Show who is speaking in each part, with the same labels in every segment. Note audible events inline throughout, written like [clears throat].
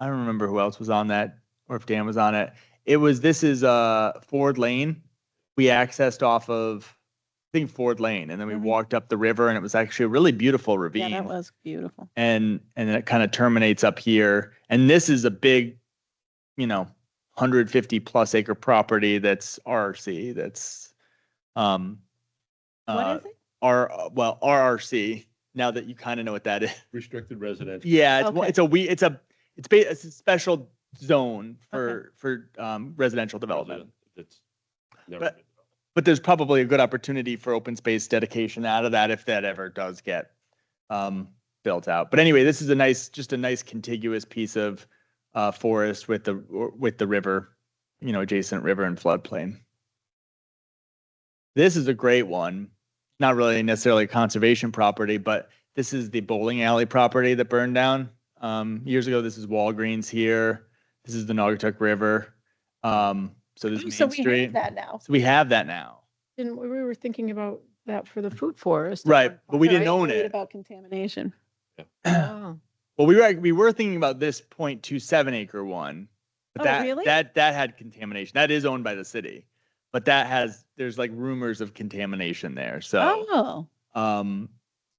Speaker 1: I don't remember who else was on that or if Dan was on it. It was, this is uh Ford Lane. We accessed off of, I think Ford Lane, and then we
Speaker 2: Mhm.
Speaker 1: walked up the river and it was actually a really beautiful
Speaker 2: Yeah,
Speaker 1: ravine.
Speaker 2: that was beautiful.
Speaker 1: and and then it kind of terminates up here and this is a big you know 150 plus acre property that's rc that's um uh,
Speaker 2: What is it?
Speaker 1: r well rrc now that you kind of know what that [laughs] is
Speaker 3: Restricted residential.
Speaker 1: yeah it's, one-
Speaker 2: Okay.
Speaker 1: it's a we it's a it's, ba- it's a special zone for for um residential development
Speaker 3: That's never
Speaker 1: But-
Speaker 3: been
Speaker 1: but there's probably a good opportunity for open space dedication out of that if that ever does get um, built out. But anyway, this is a nice, just a nice contiguous piece of uh, forest with the or with the river, you know, adjacent river and floodplain. This is a great one. Not really necessarily a conservation property, but this is the bowling alley property that burned down um, years ago. This is Walgreens here. This is the Naugatuck River. Um, so this
Speaker 2: Oh,
Speaker 1: is
Speaker 2: So
Speaker 1: Main
Speaker 2: we
Speaker 1: Street.
Speaker 2: have that now.
Speaker 1: So we have that now.
Speaker 4: Didn't, we we were thinking about that for the food forest. at
Speaker 1: Right,
Speaker 4: one
Speaker 1: but we
Speaker 4: point,
Speaker 1: didn't
Speaker 4: right?
Speaker 1: own
Speaker 2: Worried
Speaker 1: it.
Speaker 2: About contamination. [clears throat]
Speaker 4: Oh,
Speaker 1: Well, we were, we were thinking about this 0.27 acre one. But
Speaker 2: Oh,
Speaker 1: that,
Speaker 2: really?
Speaker 1: that, that had contamination. That is owned by the city. But that has, there's like rumors of contamination there. So,
Speaker 2: Oh,
Speaker 1: um,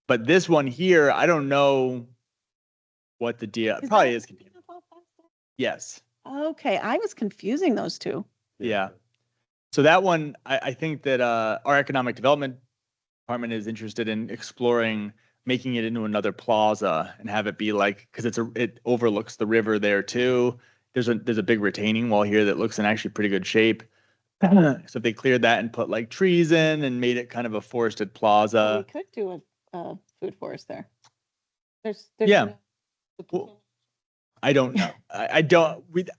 Speaker 1: but this one here, I don't know what the deal,
Speaker 2: that-
Speaker 1: probably is contaminated. Yes.
Speaker 2: okay. I was confusing those two.
Speaker 1: Yeah. So that one, I, I think that uh, our economic development department is interested in exploring making it into another plaza and have it be like because it's a it overlooks the river there too. There's a there's a big retaining wall here that looks in actually pretty good shape. [clears throat] so if they cleared that and put like trees in and made it kind of a forested
Speaker 2: We
Speaker 1: plaza,
Speaker 2: could do a, uh food forest there. There's, there's.
Speaker 1: Yeah. uh,
Speaker 2: no- the
Speaker 1: Well,
Speaker 2: pool-
Speaker 1: I don't know. I, I don't. We, would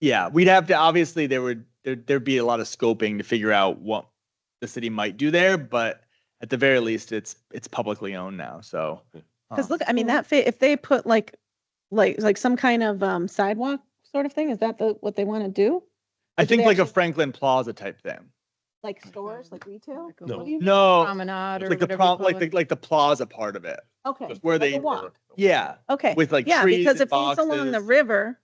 Speaker 1: yeah, we'd have to obviously there would there there'd be a lot of scoping to figure out what the city might do there, but at the very least, it's it's publicly owned now. So
Speaker 3: Yeah.
Speaker 2: Cause
Speaker 1: um,
Speaker 2: look, I mean,
Speaker 4: Cool.
Speaker 2: that, fa- if they put like, like, like some kind of um sidewalk sort of thing, is that the, what they want to do?
Speaker 1: I
Speaker 2: do they
Speaker 1: think like a
Speaker 2: actually-
Speaker 1: Franklin Plaza type thing,
Speaker 2: Like stores, like retail?
Speaker 4: Like a
Speaker 3: No.
Speaker 2: What do you-
Speaker 1: no,
Speaker 4: Promenade
Speaker 1: it's
Speaker 4: or
Speaker 1: like the
Speaker 4: whatever. you
Speaker 1: prom,
Speaker 4: call
Speaker 1: like
Speaker 4: it.
Speaker 1: the like the plaza part of it.
Speaker 2: Okay.
Speaker 1: where
Speaker 2: like a
Speaker 1: they-
Speaker 2: walk.
Speaker 1: Yeah,
Speaker 2: Okay.
Speaker 1: with like
Speaker 2: Yeah,
Speaker 1: trees
Speaker 2: because
Speaker 1: and
Speaker 2: if he's along the
Speaker 1: boxes.
Speaker 2: river,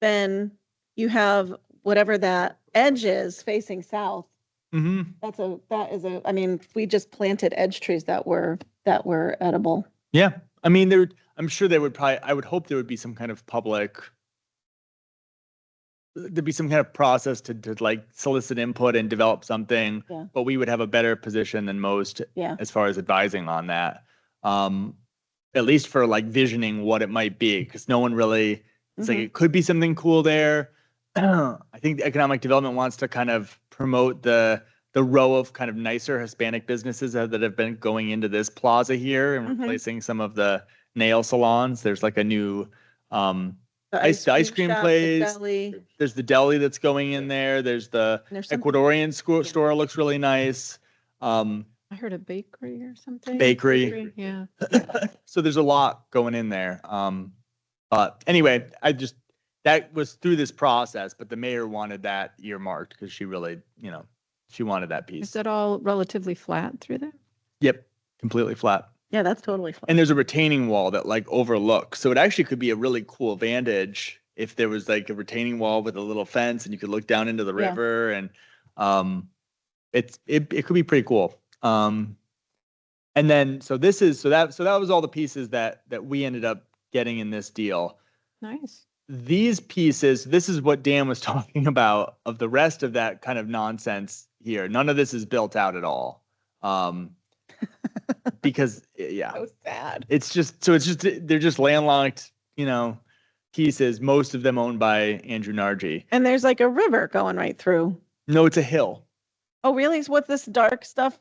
Speaker 2: then you have whatever that edge is facing south.
Speaker 1: hmm
Speaker 2: That's a, that is a, I mean, we just planted edge trees that were, that were edible.
Speaker 1: Yeah, I mean, there. I'm sure there would probably. I would hope there would be some kind of public. There'd be some kind of process to to like solicit input and develop something.
Speaker 2: Yeah.
Speaker 1: But we would have a better position than most
Speaker 2: Yeah.
Speaker 1: as far as advising on that. Um, at least for like visioning what it might be, because no one really. It's like
Speaker 2: Mhm.
Speaker 1: it could be something cool there. [clears throat] I think the economic development wants to kind of promote the the row of kind of nicer Hispanic businesses that that have been going into this plaza here and
Speaker 2: Mhm.
Speaker 1: replacing some of the nail salons. There's like a new um
Speaker 2: The
Speaker 1: ice- the ice cream
Speaker 2: Mm-hmm. shop, the
Speaker 1: place.
Speaker 2: deli,
Speaker 1: there's the deli that's going in there. There's the
Speaker 2: and There's some,
Speaker 1: Ecuadorian sco-
Speaker 2: Yeah.
Speaker 1: store looks really nice. Um
Speaker 4: I heard a bakery or something.
Speaker 1: Bakery.
Speaker 4: Yeah.
Speaker 1: so there's a lot going in there. Um, but anyway, I just that was through this process, but the mayor wanted that earmarked because she really, you know, she wanted that
Speaker 4: Is
Speaker 1: piece.
Speaker 4: that all relatively flat through there?
Speaker 1: Yep, completely flat.
Speaker 2: yeah, that's totally fine.
Speaker 1: And there's a retaining wall that like overlooks, so it actually could be a really cool vantage if there was like a retaining wall with a little fence and you could look down into the
Speaker 2: Yeah.
Speaker 1: river and um, it's it it could be pretty cool. Um, and then so this is so that so that was all the pieces that that we ended up getting in this deal
Speaker 4: Nice.
Speaker 1: these pieces, this is what Dan was [laughs] talking about of the rest of that kind of nonsense here. None of this is built out at all.
Speaker 2: [laughs]
Speaker 1: Um, because yeah,
Speaker 2: So sad.
Speaker 1: it's just so it's just they're just landlocked, you know, pieces, most of them owned by Andrew Nargi.
Speaker 2: And there's like a river going right through.
Speaker 1: No, it's a hill.
Speaker 2: Oh, really? What's this dark stuff?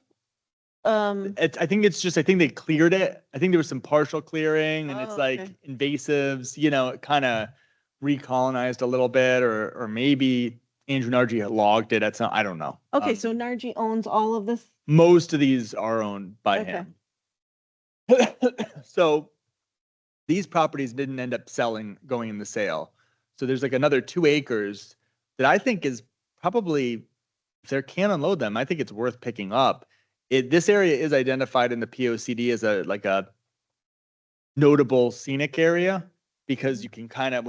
Speaker 2: Um,
Speaker 1: It's, I think it's just I think they cleared it. I think there was some partial clearing and
Speaker 2: Oh,
Speaker 1: it's like
Speaker 2: okay.
Speaker 1: invasives, you know, it kind of recolonized a little bit or or maybe Andrew Nargi had logged it at some I don't know.
Speaker 2: okay,
Speaker 1: Um,
Speaker 2: so Nargi owns all of this.
Speaker 1: most of these are owned by
Speaker 2: Okay.
Speaker 1: him. [laughs] so these properties didn't end up selling, going in the sale. So there's like another two acres that I think is probably, if they can unload them, I think it's worth picking up. It, this area is identified in the POCD as a, like a notable scenic area because you can kind of, when